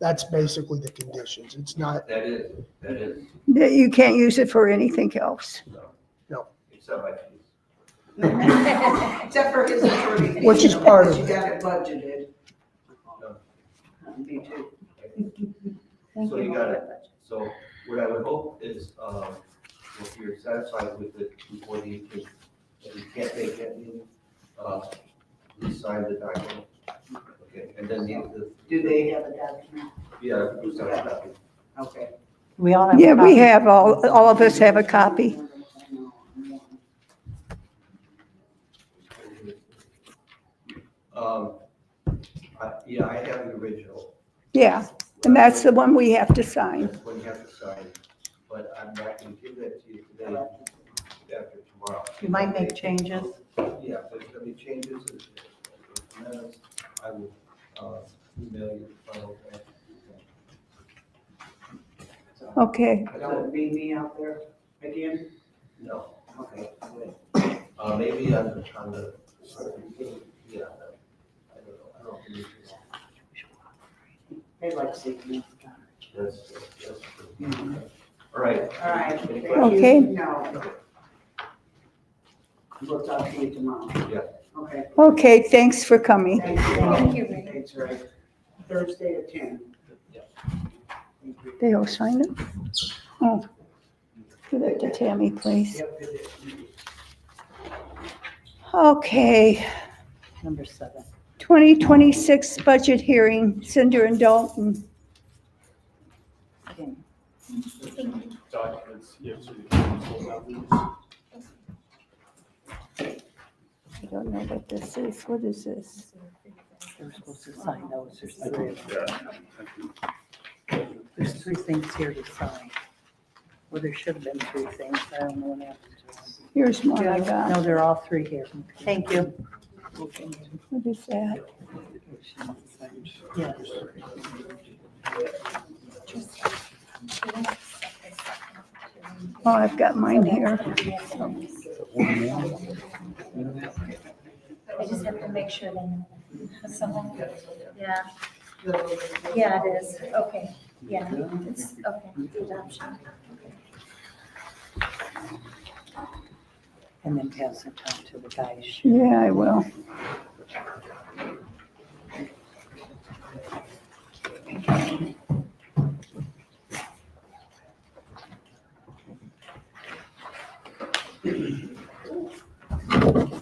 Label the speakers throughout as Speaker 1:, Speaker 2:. Speaker 1: That's basically the conditions. It's not,
Speaker 2: That is, that is,
Speaker 3: That you can't use it for anything else.
Speaker 2: no.
Speaker 1: No.
Speaker 2: Except I,
Speaker 4: Except for his attorney. fee,
Speaker 1: Which is part of
Speaker 4: You
Speaker 1: it.
Speaker 4: got it budgeted. um,
Speaker 2: No.
Speaker 4: Me too.
Speaker 2: so you got it. So what I would hope is, um, if you're satisfied with it before the, eighteenth, if you can't make that meeting, uh, please sign the document. Okay, and then the,
Speaker 4: Do they have a document?
Speaker 2: the, yeah, who's got a copy?
Speaker 4: Okay.
Speaker 5: We all have.
Speaker 3: Yeah, we have, all, all of us have a copy.
Speaker 2: Um, I, yeah, I have the original.
Speaker 3: Yeah, and that's the one we have to sign.
Speaker 2: That's what you have to sign, but I'm not gonna give that to you today, after tomorrow.
Speaker 5: You might make changes.
Speaker 2: Yeah, if there's any changes, or if there's amendments, I will, uh, email you the final. draft.
Speaker 3: Okay,
Speaker 2: I
Speaker 4: That
Speaker 2: don't,
Speaker 4: would be me out there again?
Speaker 2: no,
Speaker 4: Okay.
Speaker 2: uh, maybe on the, on the, yeah, no, I don't know, I don't believe it's-
Speaker 4: They'd like to see me.
Speaker 2: that's, that's. All right.
Speaker 4: All right.
Speaker 2: Any
Speaker 4: thank you.
Speaker 2: questions?
Speaker 3: Okay.
Speaker 4: No. We'll talk to you tomorrow.
Speaker 2: Yeah.
Speaker 4: Okay.
Speaker 3: okay, thanks for coming.
Speaker 4: Thank you.
Speaker 2: Thank
Speaker 4: you. That's right. Thursday at ten.
Speaker 2: Yeah.
Speaker 4: Thank you.
Speaker 3: They all sign it? Oh, give that to Tammy, please.
Speaker 4: Yep, it is.
Speaker 3: Okay,
Speaker 5: Number seven.
Speaker 3: 2026 budget hearing, Cinder and Dalton.
Speaker 6: documents, you have to hold out these.
Speaker 3: I don't know what this is, what is this?
Speaker 5: They're supposed to sign those. There's three. of them. There's three things here to sign. Well, there should have been three things. I don't know what happened to
Speaker 3: Here's one I
Speaker 5: them.
Speaker 3: got.
Speaker 5: No, they're all three here. Oh, Thank you.
Speaker 3: What is that?
Speaker 5: Yes.
Speaker 3: Oh, I've got mine here.
Speaker 7: I just have to make sure they know. that. Someone- Yeah. Yeah, it is. Okay, yeah, it's, okay, the adoption.
Speaker 5: And then pass it on to the guys.
Speaker 3: Yeah, I will.
Speaker 6: So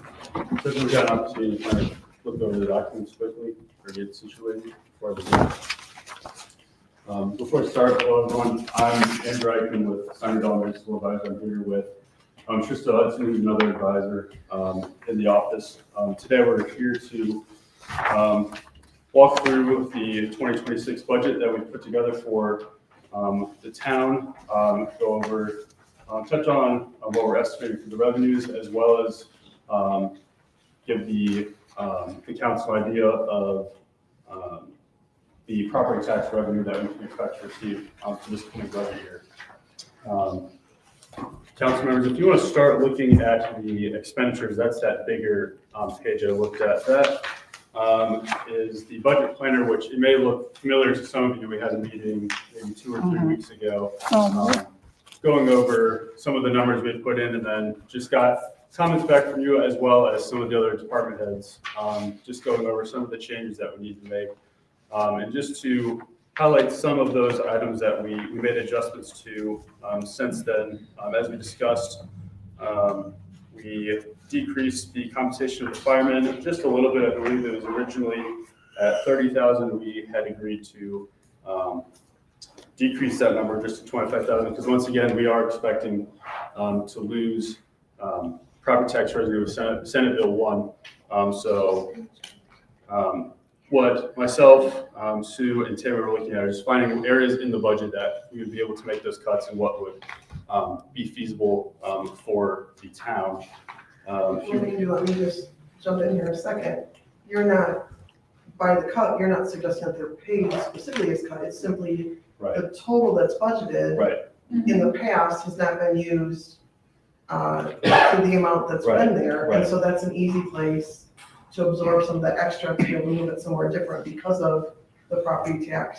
Speaker 6: if we've got an opportunity to kind of look over the documents quickly or get situated before the meeting. Um, Before I start, hello everyone, I'm Andrew Eichman with Sunderdall Municipal Advisor. I'm here with um, Trista Hudson, who's another advisor um, in the office. Um, Today, we're here to um, walk through the 2026 budget that we put together for um, the town, um, go over, um, touch on uh, what we're estimating for the revenues as well as um, give the, um, the council idea of, um, the property tax revenue that we can expect to receive, um, for this coming budget year. Um, Council members, if you want to start looking at the expenditures, that's that bigger, um, page I looked at. That, um, is the budget planner, which it may look familiar to some of you. We had a meeting maybe two or three weeks ago
Speaker 3: Oh,
Speaker 6: um, going over some of the numbers we had put in and then just got comments back from you as well as some of the other department heads, um, just going over some of the changes that we need to make. Um, and just to highlight some of those items that we, we made adjustments to, um, since then, um, as we discussed, um, we decreased the compensation of the firemen just a little bit. I believe it was originally at thirty thousand. We had agreed to, um, decrease that number just to twenty-five thousand, because once again, we are expecting um, to lose um, property tax revenue with Senate, Senate Bill one. Um, So um, what myself, um, Sue, and Tammy were looking at is finding areas in the budget that we would be able to make those cuts and what would um, be feasible um, for the town. Um,
Speaker 8: Before you do, let me just jump in here a second. You're not, by the cut, you're not suggesting that they're paid specifically as cut. It's simply
Speaker 6: Right,
Speaker 8: the total that's budgeted
Speaker 6: right.
Speaker 8: in the past has not been used uh, to the amount that's
Speaker 6: Right,
Speaker 8: been there.
Speaker 6: right.
Speaker 8: And so that's an easy place to absorb some of the extra, to be able to move it somewhere different because of the property tax